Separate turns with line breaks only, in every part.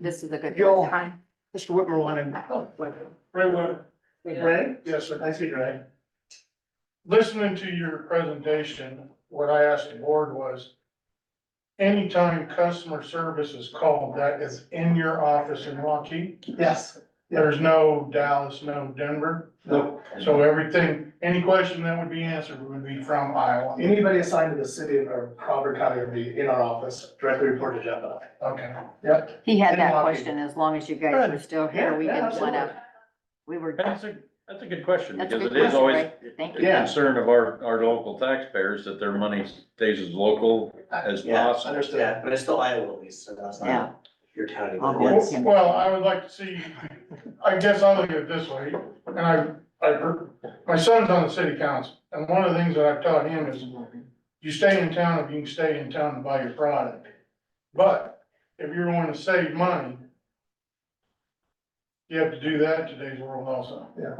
this is a good
Joel.
time. Oh,
Mr. Whitmer wanted.
Ray Whitmer. Ray? Yes, sir.
I see, right?
Listening to your presentation, what I asked the board was, anytime customer service is called, that is in your office in Rocky.
Yes.
There's no Dallas, no Denver.
No.
So everything, any question that would be answered would be from Iowa.
Anybody assigned to the city or Crawford County would be in our office, directly reported to Jeff. and I.
Okay.
Yep.
He had
And
that
walking.
question, as long as you guys were still here, we didn't wanna, we were,
That's a, that's a good question,
That's a
because
good
it is
question,
always
Ray.
the
Thank you.
Yeah.
concern of our, our local taxpayers that their money stays as local as
Yeah,
possible.
Yeah, but it's still Iowa at least, so that's
Yeah.
not your county.
I'll
but
go
yes.
with him.
Well, I would like to see, I guess I'll look at it this way, and I, I, heard- my son's on the city council, and one of the things that I've taught him is you stay in town if you can stay in town and buy your product. But if you're wanting to save money, you have to do that in today's world also.
Yeah.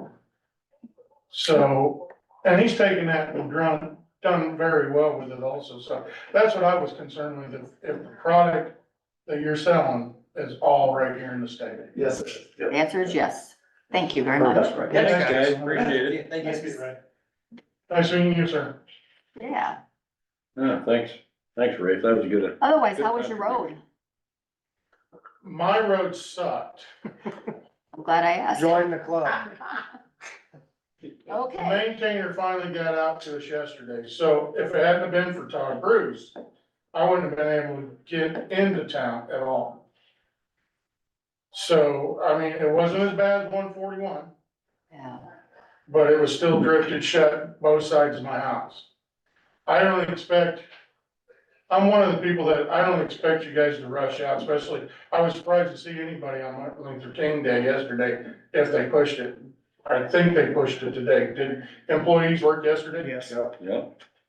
So, and he's taken that and done, done very well with it also, so that's what I was concerned with, if, if the product that you're selling is all right here in the state.
Yes. it is.
the answer is yes. Thank you very much.
Yeah,
Thanks, guys, appreciate it.
Thank
Nice to
you.
meet you, Ray.
Nice meeting you, sir.
Yeah,
Yeah, thanks, thanks, Ray, that was a good.
otherwise, how was your road?
My road sucked.
I'm glad I asked.
Join the club.
The
Okay,
Maintainer finally got out to us yesterday, so if it hadn't been for Todd Bruce, I wouldn't have been able to get into town at all. So, I mean, it wasn't as bad as one forty-one,
yeah,
but it was still drifted shut both sides of my house. I don't expect, I'm one of the people that, I don't expect you guys to rush out, especially, I was surprised to see anybody on Martin Luther King Day yesterday, if they pushed it. I think they pushed it today, did employees work yesterday?
Yes.
Yeah.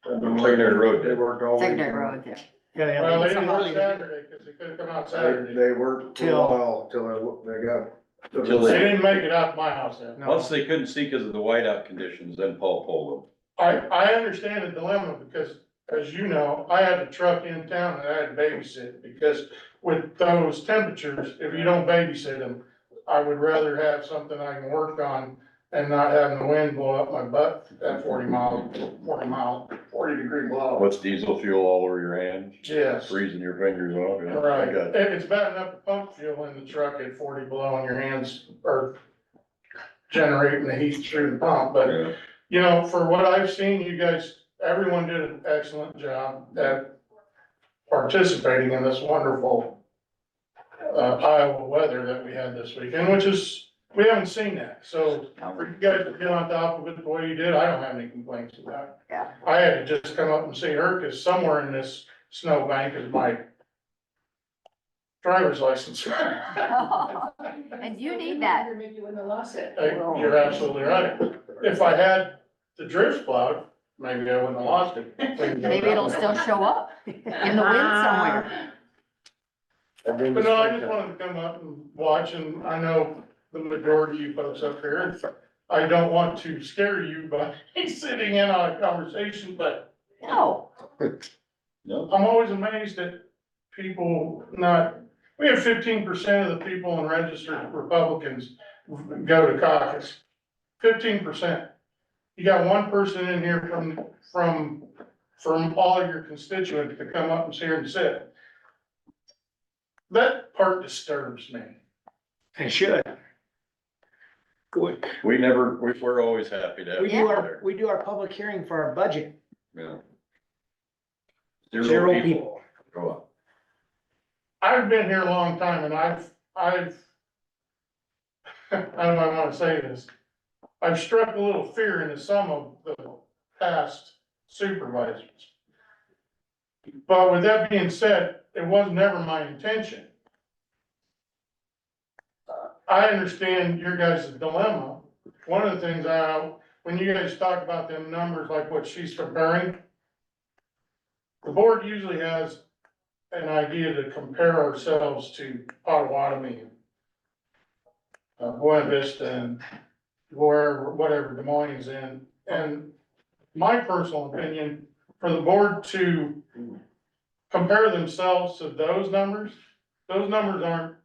Secondary road,
They
did.
worked all week.
secondary road there.
Well, they didn't work
Yeah.
Saturday, cause they couldn't come out
They,
Saturday,
they worked for a
Till-
while, till they, looked- they got.
Till
they didn't make it out to my house then.
once they couldn't see because of the whiteout conditions, then Paul pulled
I, I understand the dilemma because, as you know, I had a truck in town and I had to babysit because with those temperatures, if you don't babysit them, I would rather have something I can work on and not having the wind blow up my butt at forty mile, forty mile, forty degree
them.
blow.
What's diesel fuel all over your hands,
Yes,
freezing your fingers off. yeah, I
right.
got it.
It- It's bad enough to pump fuel in the truck at forty below on your hands or generating the heat through the pump, but
Yeah.
you know, for what I've seen, you guys, everyone did an excellent job at participating in this wonderful uh, Iowa weather that we had this weekend, which is, we haven't seen that. So for you guys to get on top of it the way you did, I don't have any complaints about it.
Yeah.
I had to just come up and see her because somewhere in this snowbank is my driver's license.
And you need that.
Maybe when they lost it.
Hey, You're absolutely right. If I had the drift plowed, maybe I wouldn't have lost it.
Maybe it'll still show up in the wind somewhere.
But no, I just wanted to come up and watch, and I know the majority of you folks up here, I don't want to scare you by sitting in on a conversation, but
No,
No,
I'm always amazed at people not, we have fifteen percent of the people in registered Republicans go to caucus. Fifteen percent. You got one person in here from, from, from all of your constituents to come up and sit here and sit. That part disturbs me.
They should.
we never, we, we're always happy to have
We
you
do our,
there.
we do our public hearing for our budget,
Yeah.
zero people.
Grow up.
I've been here a long time and I've, I've, I don't know how I wanna say this. I've struck a little fear into some of the past supervisors. But with that being said, it was never my intention. I understand your guys' dilemma. One of the things I, when you guys talk about them numbers, like what she's comparing, the board usually has an idea to compare ourselves to Potawatomi. and, Uh, Buena Vista and where, whatever Des Moines is in, and my personal opinion, for the board to compare themselves to those numbers, those numbers aren't